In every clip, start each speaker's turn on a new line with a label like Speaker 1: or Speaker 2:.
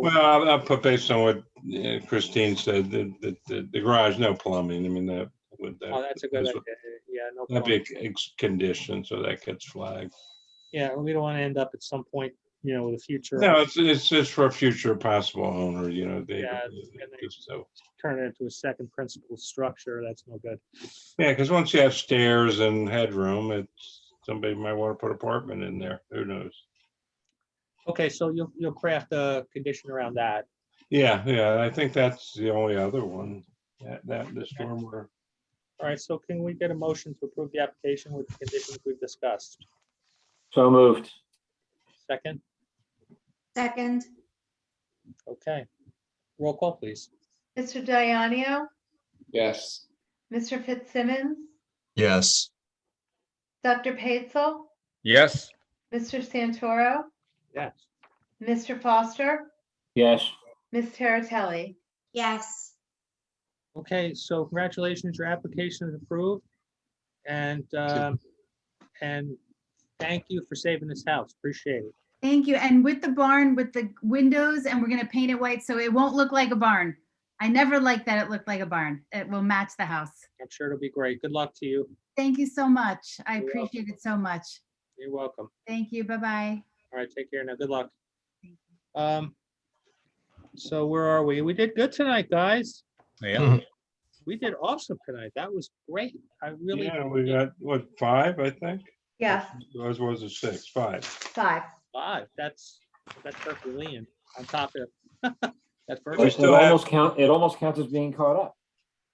Speaker 1: Well, I'll- I'll put based on what uh, Christine said, the, the- the, the garage, no plumbing. I mean, that would,
Speaker 2: Oh,
Speaker 1: that-
Speaker 2: that's a good
Speaker 1: that's
Speaker 2: idea.
Speaker 1: what-
Speaker 2: Yeah, no
Speaker 1: that'd
Speaker 2: problem.
Speaker 1: be a ex- condition, so that gets flagged.
Speaker 2: Yeah, we don't want to end up at some point, you know, with a future,
Speaker 1: No, it's, it's just for a future possible owner, you know, they,
Speaker 2: Yeah, it's- and they-
Speaker 1: just so.
Speaker 2: turn it into a second principal structure. That's no good.
Speaker 1: Yeah, because once you have stairs and headroom, it's, somebody might want to put apartment in there. Who knows?
Speaker 2: Okay, so you'll, you'll craft a condition around that.
Speaker 1: Yeah, yeah, I think that's the only other one, that, that, the stormwater.
Speaker 2: All right, so can we get a motion to approve the application with the conditions we've discussed?
Speaker 3: So moved.
Speaker 2: Second,
Speaker 4: Second,
Speaker 2: okay. Roll call, please.
Speaker 4: Mr. Dianio,
Speaker 3: Yes.
Speaker 4: Mr. Fitzsimmons,
Speaker 5: Yes.
Speaker 4: Dr. Patel,
Speaker 6: yes.
Speaker 4: Mr. Santoro,
Speaker 2: Yes.
Speaker 4: Mr. Foster,
Speaker 3: Yes.
Speaker 4: Ms. Teratelli.
Speaker 7: yes.
Speaker 2: Okay, so congratulations, your application is approved. And, um, and thank you for saving this house. Appreciate it.
Speaker 7: Thank you. And with the barn, with the windows, and we're gonna paint it white, so it won't look like a barn. I never liked that it looked like a barn. It will match the house.
Speaker 2: I'm sure it'll be great. Good luck to you.
Speaker 7: Thank you so much. I
Speaker 2: You're welcome.
Speaker 7: appreciate it so much.
Speaker 2: You're welcome.
Speaker 7: Thank you. Bye-bye.
Speaker 2: All right, take care now. Good luck. Um, so where are we? We did good tonight, guys.
Speaker 6: Yeah,
Speaker 2: We did awesome tonight. That was great. I really,
Speaker 1: Yeah, we got, what, five, I think?
Speaker 4: Yes,
Speaker 1: Ours was a six, five.
Speaker 4: five.
Speaker 2: five. That's, that's perfectly lean on top of. That's
Speaker 1: We
Speaker 3: It
Speaker 2: perfect.
Speaker 1: still
Speaker 3: it
Speaker 1: have-
Speaker 3: almost count, it almost counts as being caught up.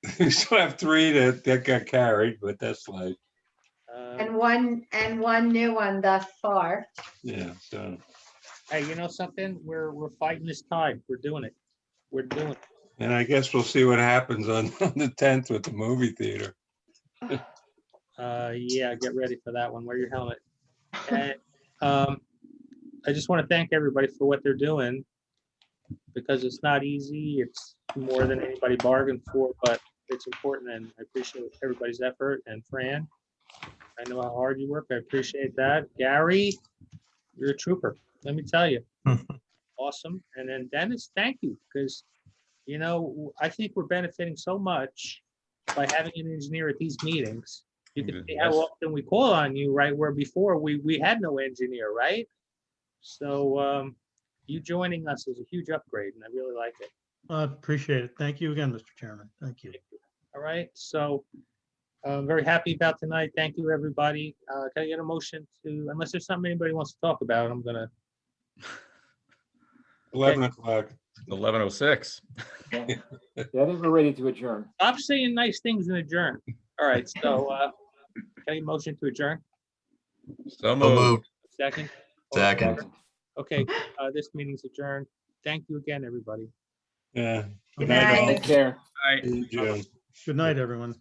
Speaker 1: We still have three that, that got carried, but that's like,
Speaker 2: Um,
Speaker 4: And one, and one new one thus far.
Speaker 1: yeah, so,
Speaker 2: Hey, you know something? We're, we're fighting this time. We're doing it. We're doing it.
Speaker 1: and I guess we'll see what happens on, on the tenth with the movie theater.
Speaker 2: Uh, yeah, get ready for that one. Wear your helmet. And, um, I just want to thank everybody for what they're doing because it's not easy. It's more than anybody bargained for, but it's important and I appreciate everybody's effort. And Fran, I know how hard you work. I appreciate that. Gary, you're a trooper. Let me tell you. Awesome. And then Dennis, thank you because, you know, I think we're benefiting so much by having an engineer at these meetings. You can see how
Speaker 6: Yes.
Speaker 2: often we call on you, right? Where before we, we had no engineer, right? So, um, you joining us is a huge upgrade and I really like it.
Speaker 8: I appreciate it. Thank you again, Mr. Chairman. Thank you.
Speaker 2: All right, so I'm very happy about tonight. Thank you, everybody. Uh, can I get a motion to, unless there's something anybody wants to talk about, I'm gonna,
Speaker 1: Eleven o'clock.
Speaker 6: eleven oh six.
Speaker 3: Yeah, I think we're ready to adjourn.
Speaker 2: stop saying nice things and adjourn. All right, so, uh, can I get a motion to adjourn?
Speaker 6: So
Speaker 5: So
Speaker 6: moved.
Speaker 5: moved.
Speaker 2: Second?
Speaker 5: Second.
Speaker 2: Okay, uh, this meeting's adjourned. Thank you again, everybody.
Speaker 1: Yeah.
Speaker 4: Good night.
Speaker 3: Take care.
Speaker 6: Aye.
Speaker 1: June.
Speaker 8: Good night, everyone.